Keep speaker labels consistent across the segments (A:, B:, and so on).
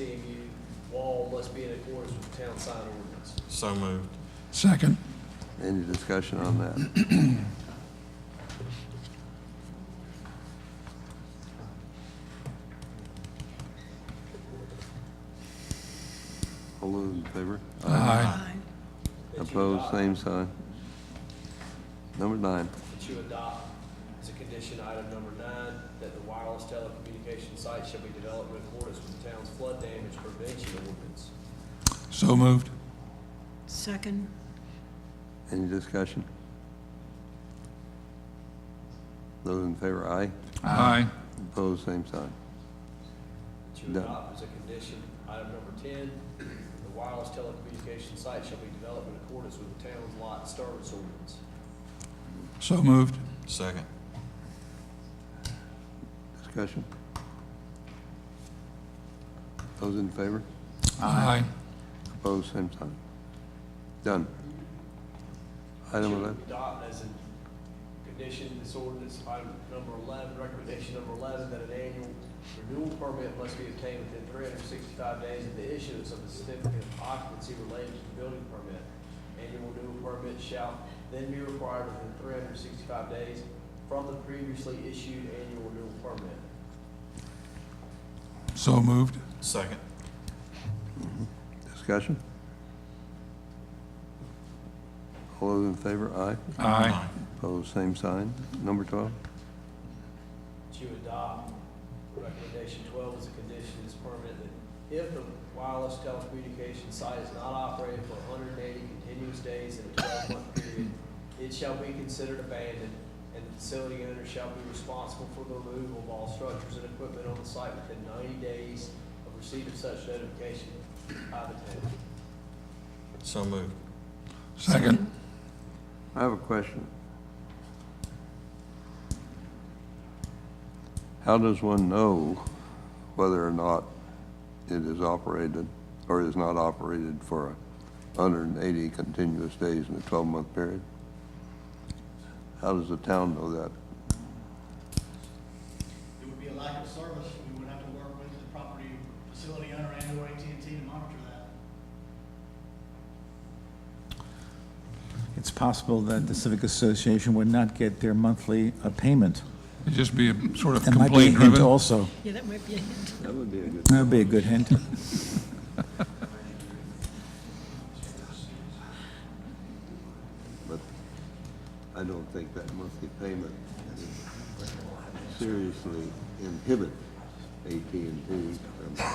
A: CMU wall must be in accordance with town sign ordinance.
B: So moved.
C: Second.
D: Any discussion on that? All those in favor?
C: Aye.
A: That you
D: Opposed,
A: adopt-
D: same sign. Number nine,
A: That you adopt as a condition, item number nine, that the wireless telecommunication site shall be developed in accordance with the town's flood damage prevention ordinance.
C: So moved.
E: Second,
D: any discussion? Those in favor, aye.
C: Aye.
D: Opposed, same sign.
A: That you
D: No.
A: adopt as a condition, item number ten, the wireless telecommunication site shall be developed in accordance with the town's lot disturbance ordinance.
C: So moved.
B: Second.
D: Discussion? Those in favor?
C: Aye.
D: Opposed, same sign. Done. Item
A: Should
D: 11,
A: Adopt as a condition, this ordinance, item number eleven, recommendation number eleven, that an annual renewal permit must be obtained within three hundred and sixty-five days of the issuance of a certificate of occupancy related to the building permit. Annual renewal permit shall then be required within three hundred and sixty-five days from the previously issued annual renewal permit.
C: So moved.
B: Second.
D: discussion? All those in favor, aye.
C: Aye.
D: Opposed, same sign. Number 12,
A: to adopt recommendation twelve as a condition of this permit that if the wireless telecommunications site is not operated for hundred and eighty continuous days in a twelve-month period, it shall be considered abandoned, and the facility owner shall be responsible for the removal of all structures and equipment on the site within ninety days of receipt of such notification by the town.
B: So moved.
C: Second.
D: I have a question. How does one know whether or not it is operated or is not operated for 180 continuous days in a 12-month period? How does the town know that?
F: It would be a lack of service, we would have to work with the property facility owner and or AT&T to monitor that.
G: It's possible that the Civic Association would not get their monthly uh, payment.
C: It'd just be a sort of
G: That might be a hint
C: complaint-driven.
G: also.
E: yeah, that might be a hint.
D: That would be a good...
G: That would be a good hint.
D: But I don't think that monthly payment seriously inhibit AT&T from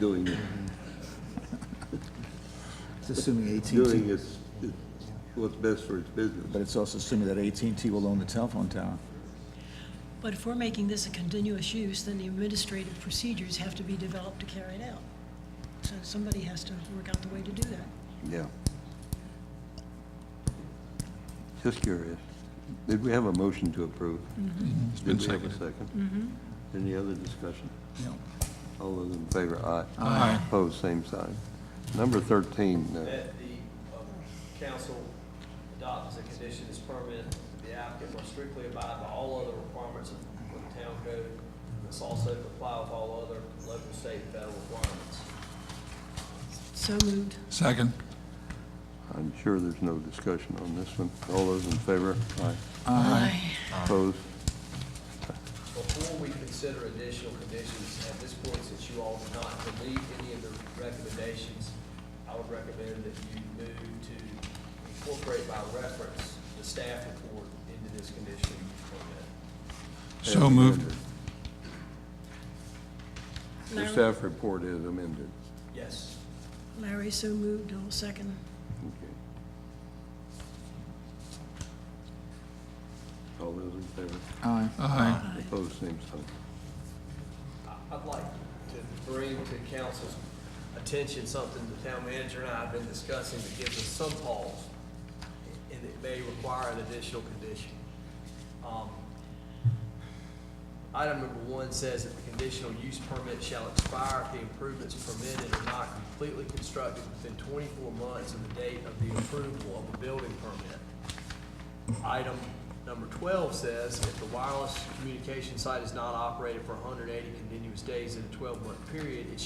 D: doing,
G: It's assuming AT&T,
D: doing its, what's best for its
G: but
D: business.
G: it's also assuming that AT&T will own the telephone tower.
E: But if we're making this a continuous use, then the administrative procedures have to be developed to carry it out. So somebody has to work out the way to do that.
D: Yeah. Just curious. Did we have a motion to approve?
C: It's been
D: Did we have a
C: seconded.
D: 2nd Any other discussion?
G: No.
D: All those in favor, aye.
C: Aye.
D: Opposed, same sign. Number 13,
A: That
D: uh,
A: the uh, council adopts as a condition of this permit, that the applicant must strictly abide by all other requirements of the town code. Must also comply with all other local, state, and federal requirements.
E: So moved.
C: Second.
D: I'm sure there's no discussion on this one. All those in favor? Aye.
E: Aye.
D: Opposed?
A: Before we consider additional conditions, at this point, since you all did not delete any of the recommendations, I would recommend that you move to incorporate by reference the staff report into this condition permit.
C: So moved.
D: The
E: Larry-
D: staff report is amended.
A: Yes.
E: Larry, so moved, I'll second.
D: Okay. All those in favor?
G: Aye.
C: Aye.
E: Aye.
D: Opposed, same sign.
A: I'd like to bring to council's attention something the town manager and I have been discussing that gives us some pause, and it may require an additional condition. Um, Item number one says that the conditional use permit shall expire if the improvements permitted are not completely constructed within twenty-four months of the date of the approval of the building permit. Item Number twelve says, if the wireless communication site is not operated for hundred and eighty continuous days in a twelve-month period, it